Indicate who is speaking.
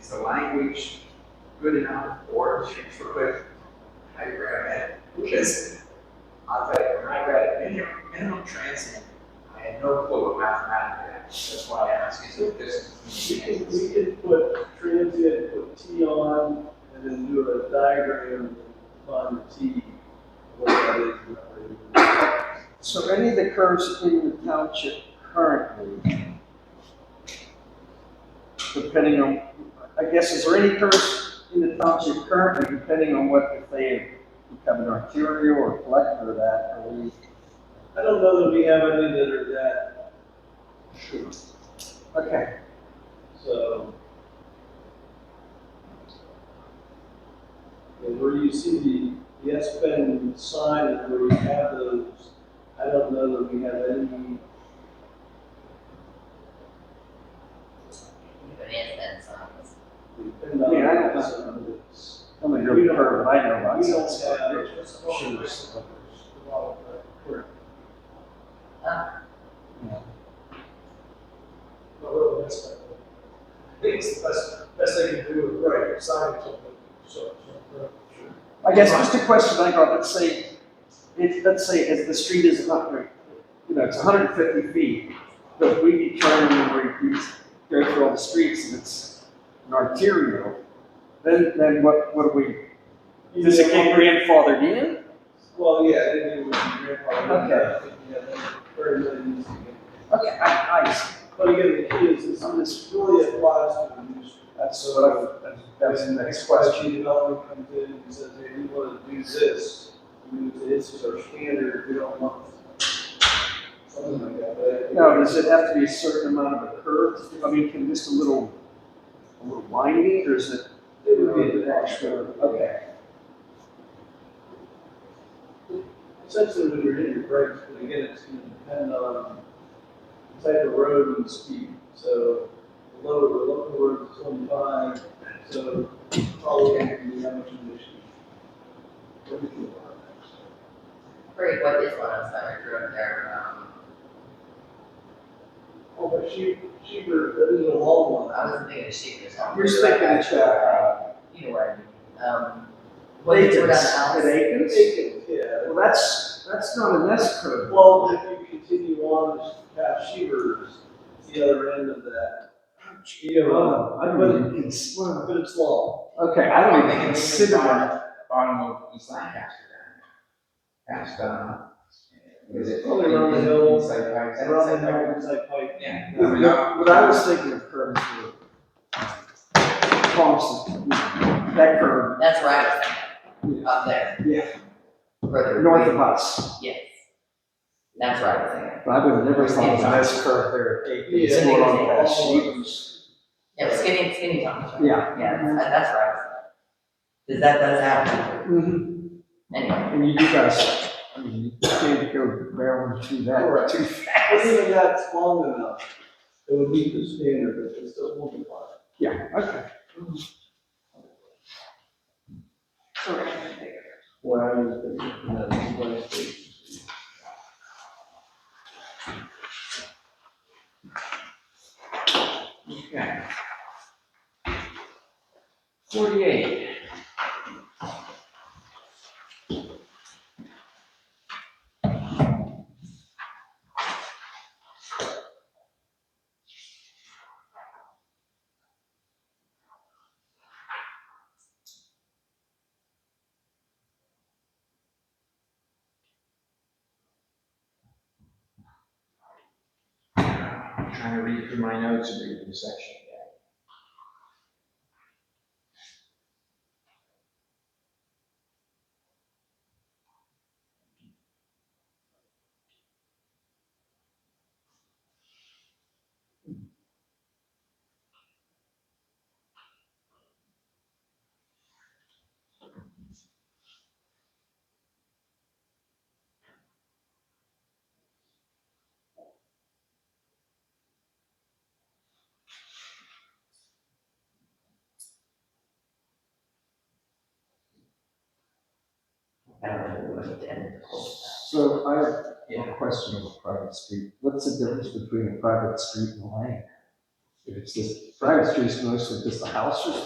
Speaker 1: Is the language good enough or should we put, I read it, because I'll tell you, when I read it, minimum, minimum transit, I had no clue what mathematics that. That's why I asked, is it this?
Speaker 2: We could, we could put transient, put T on, and then do a diagram on the T. what that is, what that is.
Speaker 3: So any of the curves in the township currently, depending on, I guess, is there any curves in the township currently, depending on what, if they become an arterial or collector of that, or we?
Speaker 2: I don't know that we have any that are that,
Speaker 3: Sure. Okay,
Speaker 2: so. And where you see the, the S Pen sign and where you have those, I don't know that we have any,
Speaker 4: Even if that's not-
Speaker 2: we depend on.
Speaker 3: Yeah, I don't know.
Speaker 2: some of this.
Speaker 3: I'm a good curve, I know about.
Speaker 2: We don't have.
Speaker 3: Shoes.
Speaker 4: Uh,
Speaker 5: But really, that's not, I think it's the best, best they can do with right signage of the, so, so.
Speaker 3: I guess just a question I got, let's say, if, let's say, if the street is not, very- you know, it's hundred and fifty feet, but we determine where we go through all the streets and it's an arterial, then, then what, what do we, does it get grandfathered in?
Speaker 2: Well, yeah, I think it would be grandfathered.
Speaker 3: Okay.
Speaker 2: Yeah, that's very, very easy.
Speaker 3: Okay, I, I, see.
Speaker 2: But again, the key is, is this really applies to the new street.
Speaker 3: that's what I, that's- that's the next question.
Speaker 2: When Development comes in and says, hey, we want to do this, we do this as our standard, we don't want something like that, but.
Speaker 3: Now, does it have to be a certain amount of a curve, I mean, can just a little, a little winding, or is it?
Speaker 2: It would be an extra,
Speaker 3: Okay.
Speaker 2: essentially when you're in your brakes, but again, it's gonna depend on the type of road and speed. So the lower, the local road is twenty-five, so probably gonna be how much emission. What do you think about that?
Speaker 4: Pretty what is one of them, I drew up there, um,
Speaker 2: Oh, but she, she, that is a long one.
Speaker 4: I wasn't thinking of sheep or something.
Speaker 3: You're sticking it, uh,
Speaker 4: Either way, um, what is it
Speaker 3: Lakers,
Speaker 4: about
Speaker 3: at
Speaker 4: the house?
Speaker 3: Akins?
Speaker 2: Yeah.
Speaker 3: Well, that's, that's not an S curve.
Speaker 2: Well, if you continue on past Shevers, it's the other end of that. Yeah,
Speaker 3: Wow, I
Speaker 2: but
Speaker 3: don't even
Speaker 2: it's, but it's long.
Speaker 3: Okay, I don't even consider that.
Speaker 1: Bottom of East Lancaster. That's done. Is it?
Speaker 2: Probably around the hill,
Speaker 1: It's like, it's like-
Speaker 2: Around the hill, it's like, like,
Speaker 1: Yeah. I mean,
Speaker 3: What what I was thinking of curves were Thompson, that curve,
Speaker 4: That's where I was thinking, up there.
Speaker 3: Yeah.
Speaker 4: Further.
Speaker 3: north of us.
Speaker 4: Yes. That's where I was thinking.
Speaker 3: But I would have never thought of an S curve there. at Akins,
Speaker 2: Yeah.
Speaker 3: going on past Shevers.
Speaker 4: Yeah, but skinny, skinny Thompson.
Speaker 3: Yeah.
Speaker 4: Yeah, that's- that's where I was thinking. Does that, does happen?
Speaker 3: Mhm.
Speaker 4: Anyway,
Speaker 3: And you do guys, I mean, you can't go barreling through that
Speaker 2: Correct.
Speaker 3: too
Speaker 2: But
Speaker 3: fast.
Speaker 2: even that's long enough, it would meet the standard, but it still won't be fine.
Speaker 3: Yeah, okay.
Speaker 2: What I was thinking, and that's what I think.
Speaker 1: Okay. Forty-eight. I'm Trying to read through my notes and read through the section.
Speaker 4: I don't know, we need to end the whole thing.
Speaker 3: So I have one question on a private street. What's the difference between a private street and a lane? If it's this private street's mostly just the house or